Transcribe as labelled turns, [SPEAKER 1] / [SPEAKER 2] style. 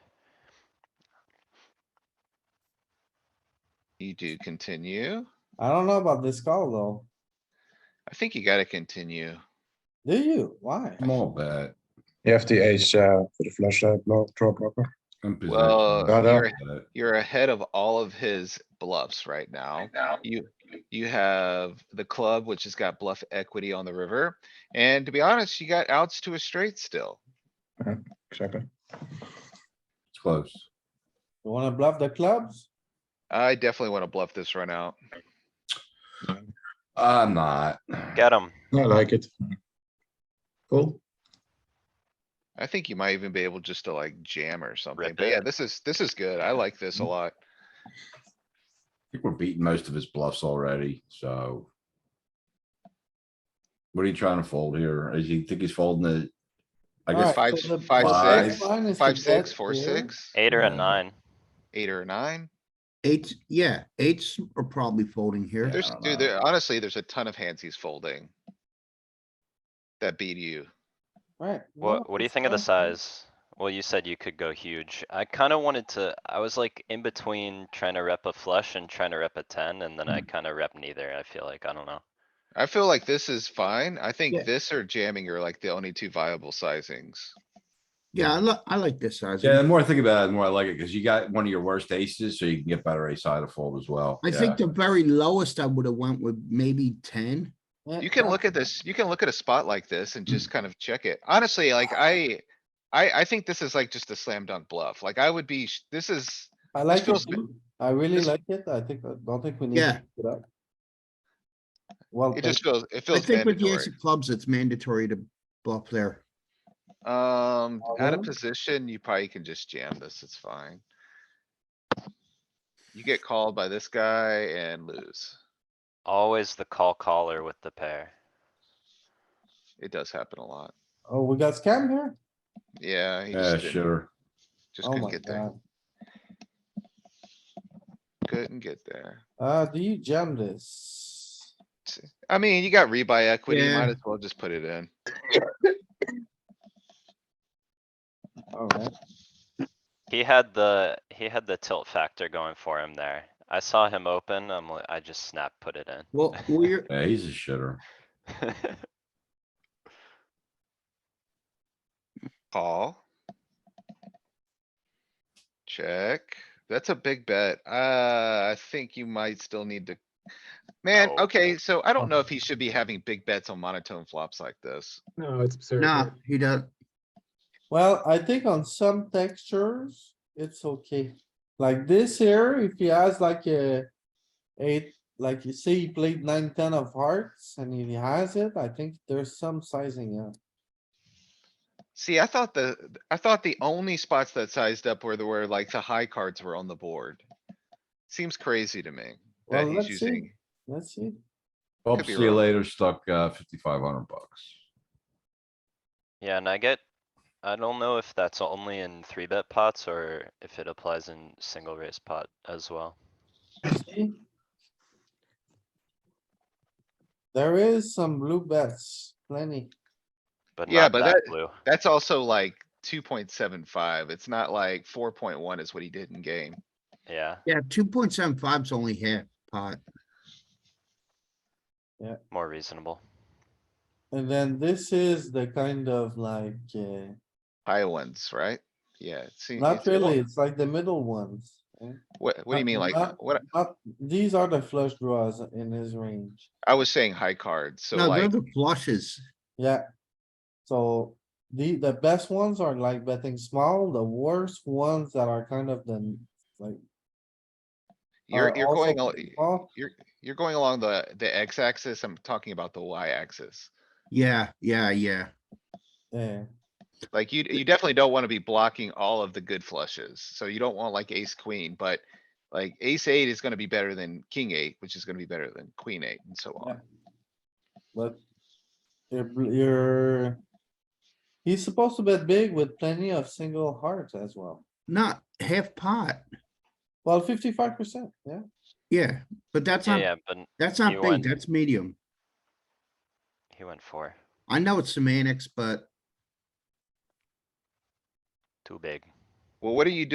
[SPEAKER 1] You do continue.
[SPEAKER 2] I don't know about this call though.
[SPEAKER 1] I think you gotta continue.
[SPEAKER 2] Do you? Why?
[SPEAKER 3] Small bet.
[SPEAKER 4] You have the ace uh, for the flush uh, blow, draw proper.
[SPEAKER 3] and position.
[SPEAKER 1] Well,
[SPEAKER 4] Yeah, that-
[SPEAKER 1] you're, you're ahead of all of his bluffs right now.
[SPEAKER 4] Now.
[SPEAKER 1] You, you have the club, which has got bluff equity on the river. And to be honest, you got outs to a straight still.
[SPEAKER 4] Exactly.
[SPEAKER 3] It's close.
[SPEAKER 2] You wanna bluff the clubs?
[SPEAKER 1] I definitely wanna bluff this run out.
[SPEAKER 3] I'm not.
[SPEAKER 5] Get him.
[SPEAKER 4] I like it. Cool.
[SPEAKER 1] I think you might even be able just to like jam or something.
[SPEAKER 5] Rip
[SPEAKER 1] But yeah,
[SPEAKER 5] it.
[SPEAKER 1] this is, this is good. I like this a lot.
[SPEAKER 3] I think we're beating most of his bluffs already, so. What are you trying to fold here? Is he think he's folding the? I guess,
[SPEAKER 1] Alright.
[SPEAKER 2] Alright, so
[SPEAKER 1] five-
[SPEAKER 2] the
[SPEAKER 1] five,
[SPEAKER 2] bottom
[SPEAKER 3] six,
[SPEAKER 2] line is to
[SPEAKER 1] Five, six,
[SPEAKER 2] bet
[SPEAKER 1] four,
[SPEAKER 2] here.
[SPEAKER 1] six,
[SPEAKER 5] Eight or a
[SPEAKER 3] Yeah.
[SPEAKER 5] nine.
[SPEAKER 1] eight or a nine.
[SPEAKER 6] Eights, yeah, eights are probably folding here.
[SPEAKER 1] There's,
[SPEAKER 3] I don't
[SPEAKER 1] dude,
[SPEAKER 3] know.
[SPEAKER 1] there, honestly, there's a ton of hands he's folding. That beat you.
[SPEAKER 2] Right.
[SPEAKER 5] What, what do you think of the size? Well, you said you could go huge. I kinda wanted to, I was like in between trying to rep a flush and trying to rep a ten, and then I
[SPEAKER 1] Mm.
[SPEAKER 5] kinda rep neither, I feel like, I don't know.
[SPEAKER 1] I feel like this is fine. I
[SPEAKER 6] Yeah.
[SPEAKER 1] think this or jamming are like the only two viable sizings.
[SPEAKER 6] Yeah, I li- I like this size.
[SPEAKER 3] yeah, the more I think about it, the more I like it, because you got one of your worst aces, so you can get better ace side to fold as well.
[SPEAKER 6] I
[SPEAKER 3] Yeah.
[SPEAKER 6] think the very lowest I would have went with maybe ten.
[SPEAKER 1] You can look at this, you can look at a spot like this and just kind of check it. Honestly, like I, I, I think this is like just a slam dunk bluff. Like I would be, sh- this is,
[SPEAKER 2] I like it.
[SPEAKER 1] feels-
[SPEAKER 2] too. I really
[SPEAKER 1] this-
[SPEAKER 2] like it. I think, I don't think we need.
[SPEAKER 6] Yeah.
[SPEAKER 2] to pick it up. Well,
[SPEAKER 1] it
[SPEAKER 2] played.
[SPEAKER 1] just feels, it
[SPEAKER 6] I
[SPEAKER 1] feels
[SPEAKER 6] think with the
[SPEAKER 1] mandatory.
[SPEAKER 6] ace of clubs, it's mandatory to bluff there.
[SPEAKER 1] Um, out of
[SPEAKER 2] Problem?
[SPEAKER 1] position, you probably can just jam this, it's fine. You get called by this guy and lose.
[SPEAKER 5] Always the call caller with the pair.
[SPEAKER 1] It does happen a lot.
[SPEAKER 2] oh, we got scammed here?
[SPEAKER 1] Yeah, he
[SPEAKER 3] Yeah,
[SPEAKER 1] just didn't,
[SPEAKER 3] sure.
[SPEAKER 1] just
[SPEAKER 2] Oh
[SPEAKER 1] couldn't
[SPEAKER 2] my
[SPEAKER 1] get there,
[SPEAKER 2] god.
[SPEAKER 1] couldn't get there.
[SPEAKER 2] Uh, do you jam this?
[SPEAKER 1] I mean, you got rebuy equity,
[SPEAKER 6] Yeah.
[SPEAKER 1] might as well just put it in.
[SPEAKER 2] Alright,
[SPEAKER 5] He had the, he had the tilt factor going for him there. I saw him open, I'm like, I just snap put it
[SPEAKER 6] Well, we're,
[SPEAKER 3] Yeah, he's a shitter.
[SPEAKER 5] in.
[SPEAKER 1] Call. Check. That's a big bet. Uh, I think you might still need to. Man,
[SPEAKER 5] Oh.
[SPEAKER 1] okay, so I don't know if he should be having big bets on monotone flops like this.
[SPEAKER 7] No, it's absurd.
[SPEAKER 6] nah, he does,
[SPEAKER 2] well, I think on some textures, it's okay. Like this here, if he has like a eight, like you say he played nine, ten of hearts and he has it, I think there's some sizing up.
[SPEAKER 1] See, I thought the, I thought the only spots that sized up were the, where like the high cards were on the board. Seems crazy to me.
[SPEAKER 2] Well,
[SPEAKER 1] That he's
[SPEAKER 2] let's see,
[SPEAKER 1] using,
[SPEAKER 2] let's see.
[SPEAKER 3] Well,
[SPEAKER 1] Could be
[SPEAKER 3] see you
[SPEAKER 1] wrong.
[SPEAKER 3] later, stuck uh fifty-five hundred bucks.
[SPEAKER 5] Yeah, and I get, I don't know if that's only in three bet pots or if it applies in single raise pot as well.
[SPEAKER 2] See? There is some blue bets, plenty.
[SPEAKER 5] But
[SPEAKER 1] Yeah,
[SPEAKER 5] not
[SPEAKER 1] but
[SPEAKER 5] that
[SPEAKER 1] that-
[SPEAKER 5] blue.
[SPEAKER 1] that's also like two point seven five. It's not like four point one is what he did in game.
[SPEAKER 5] Yeah,
[SPEAKER 6] yeah, two point seven five's only half pot.
[SPEAKER 5] more reasonable.
[SPEAKER 2] And then this is the kind of like, uh,
[SPEAKER 1] High ones, right? Yeah. see,
[SPEAKER 2] not
[SPEAKER 1] it's- well,
[SPEAKER 2] really, it's like the middle ones. eh?
[SPEAKER 1] What, what do you
[SPEAKER 2] not-
[SPEAKER 1] mean? Like,
[SPEAKER 2] not-
[SPEAKER 1] what,
[SPEAKER 2] Not, these are the flush draws in his range,
[SPEAKER 1] I was saying high cards, so
[SPEAKER 6] No, they're
[SPEAKER 1] like,
[SPEAKER 6] the flushes.
[SPEAKER 2] yeah. So the, the best ones are like betting small, the worst ones that are kind of the, like.
[SPEAKER 1] you're,
[SPEAKER 2] are
[SPEAKER 1] you're
[SPEAKER 2] uh, also
[SPEAKER 1] going, al-
[SPEAKER 2] betting small.
[SPEAKER 1] you're going along the, the X axis. I'm talking about the Y axis.
[SPEAKER 6] Yeah, yeah, yeah.
[SPEAKER 2] Yeah,
[SPEAKER 1] Like you, you definitely don't wanna be blocking all of the good flushes, so you don't want like ace queen, but like ace eight is gonna be better than king eight, which is gonna be better than queen eight and so
[SPEAKER 2] Yeah.
[SPEAKER 1] on.
[SPEAKER 2] but you're, bl- you're. He's supposed to bet big with plenty of single hearts as well.
[SPEAKER 6] Not half pot.
[SPEAKER 2] Well, fifty-five percent, yeah.
[SPEAKER 6] Yeah, but that's
[SPEAKER 5] Yeah,
[SPEAKER 6] not,
[SPEAKER 5] yeah, but
[SPEAKER 6] that's
[SPEAKER 5] you
[SPEAKER 6] not big,
[SPEAKER 5] went-
[SPEAKER 6] that's medium.
[SPEAKER 5] he went for
[SPEAKER 6] I know it's semantics, but
[SPEAKER 5] too big.
[SPEAKER 1] Well, what are you